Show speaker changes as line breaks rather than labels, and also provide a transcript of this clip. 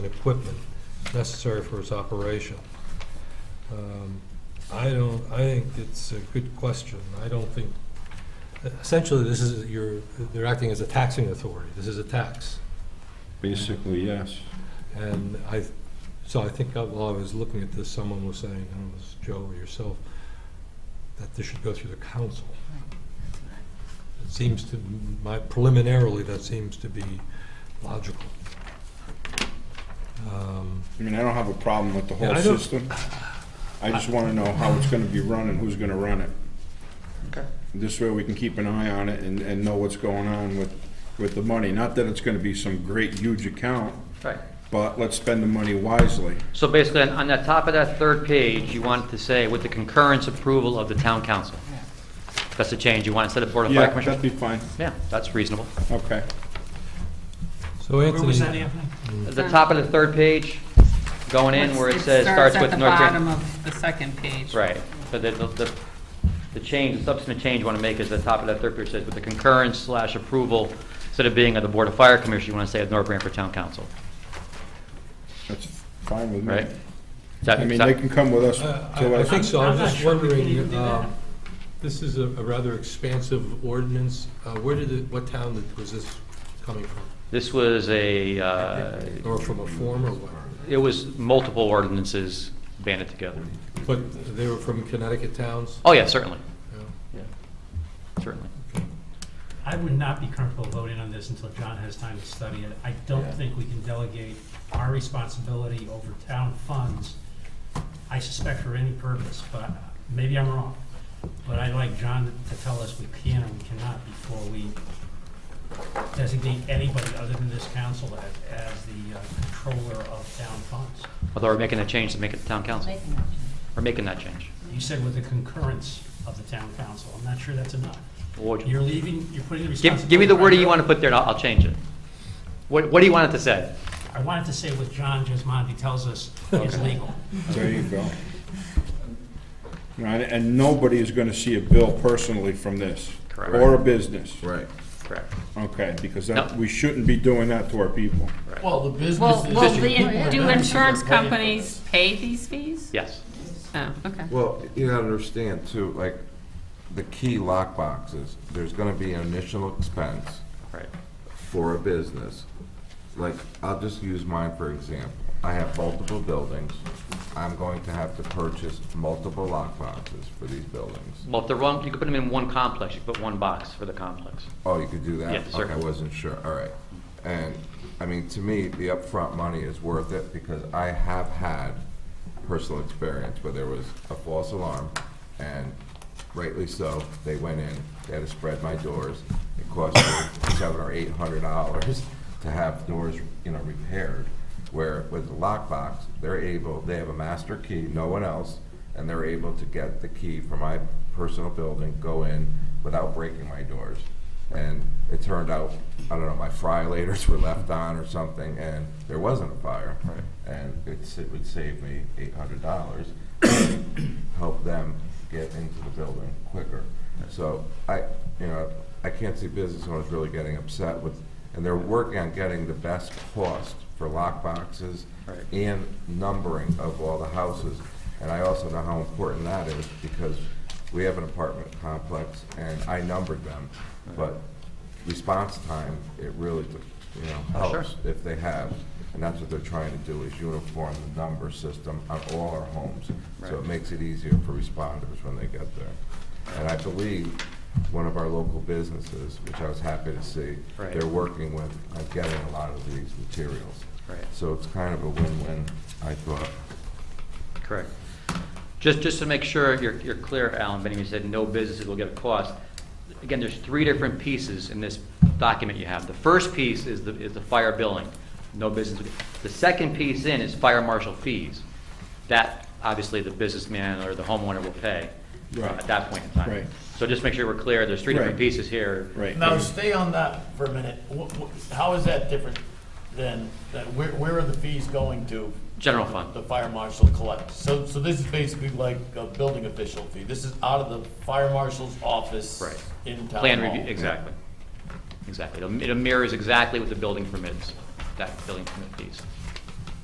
equipment necessary for its operation. Um, I don't, I think it's a good question. I don't think, essentially, this is, you're, they're acting as a taxing authority. This is a tax.
Basically, yes.
And I, so I think while I was looking at this, someone was saying, I don't know, it was Joe or yourself, that this should go through the council. It seems to, my preliminarily, that seems to be logical. Um,
I mean, I don't have a problem with the
Yeah,
whole
I don't-
system. I just want to know how it's going to be run and who's going to run it.
Okay.
This way we can keep an eye on it and, and know what's going on with, with the money. Not that it's going to be some great huge account,
Right.
but let's spend the money wisely.
So basically, on- on the top of that third page, you want to say, with the concurrence approval of the town council. That's the change. You want, instead of Board of Fire
Yeah, that'd
Commissioners?
be fine.
Yeah, that's reasonable.
Okay.
So Anthony.
Where was that, Anthony?
At the top of the third page, going in where it says, starts with North
It starts at the bottom
Green.
of the second page.
Right. So the, the- the, the change, the substantive change you want to make is the top of that third page says, with the concurrence slash approval, instead of being of the Board of Fire Commissioners, you want to say of North Branford Town Council,
That's fine with me.
right? Is that-
I
is
mean,
that-
they can come with us
Uh, I
to
I
us.
think so,
I'm-
I'm
I'm
just
not sure we can even
wondering,
do that.
um, this is a a rather expansive ordinance. Uh, Where did it, what town did- was this coming from?
This was a, uh,
Or from a form or what?
it was multiple ordinances banded together.
But they were from Connecticut towns?
Oh, yeah, certainly,
Yeah.
certainly.
I would not be comfortable voting on this until John has time to study it. I don't think we can delegate our responsibility over town funds, I suspect for any purpose, but maybe I'm wrong. But I'd like John to tell us we can or we cannot before we designate anybody other than this council as, as the uh, controller of town funds.
Although we're making a change to make it the town council,
Making that change.
we're making that change.
You said with the concurrence of the town council. I'm not sure that's enough.
What would you-
You're leaving, you're putting the responsibility.
Give, give me the wording you want to
primarily-
put there, and I'll, I'll change it. What, what do you want it to say?
I wanted to say what John Gismondi tells us is legal.
There you go. Right, and nobody is gonna see a bill personally from this.
Correct.
Or a business.
Right.
Correct.
Okay, because that,
No.
we shouldn't be doing that to our people.
Well, the
Well,
businesses.
will the, do insurance companies pay these fees?
Yes.
Oh, okay.
Well, you gotta understand too, like, the key lockboxes, there's gonna be an initial expense
Right.
for a business. Like, I'll just use mine for example. I have multiple buildings. I'm going to have to purchase multiple lockboxes for these buildings.
Well, if they're wrong, you could put them in one complex, you could put one box for the complex.
Oh, you could do that?
Yes, sir.
Okay, I wasn't sure, all right. And, I mean, to me, the upfront money is worth it because I have had personal experience where there was a false alarm and rightly so, they went in, they had to spread my doors. It cost me seven or eight hundred dollars to have doors, you know, repaired. Where with the lockbox, they're able, they have a master key, no one else, and they're able to get the key from my personal building, go in without breaking my doors. And it turned out, I don't know, my fry laters were left on or something, and there wasn't a fire. And it's, it would save me eight hundred dollars, help them get into the building quicker. So I, you know, I can't see business owners really getting upset with, and they're working on getting the best cost for lockboxes
Right.
and numbering of all the houses. And I also know how important that is because we have an apartment complex and I numbered them. But response time, it really, you know,
Oh, sure.
helps if they have. And that's what they're trying to do is uniform the number system on all our homes. So
Right.
it makes it easier for responders when they get there. And I believe one of our local businesses, which I was happy to see,
Right.
they're working with, on getting a lot of these materials.
Right.
So it's kind of a win-win, I thought.
Correct. Just, just to make sure you're, you're clear, Alan, Benning, you said no businesses will get a cost. Again, there's three different pieces in this document you have. The first piece is the, is the fire billing, no business. will get- The second piece in is fire marshal fees. That, obviously, the businessman or the homeowner will pay uh,
Right.
at that point in time.
Right.
So just make sure we're clear, there's three different
Right.
pieces here.
Right.
Now, stay on that for a minute. Wh- wh- How is that different than, that? where where are the fees going to?
General fund.
The fire marshal collects. So, so this is basically like a building official fee. This is out of the fire marshal's office.
Right.
In town
Plan
hall.
review, exactly. Exactly. It mirrors exactly what the building permits, that building permit piece.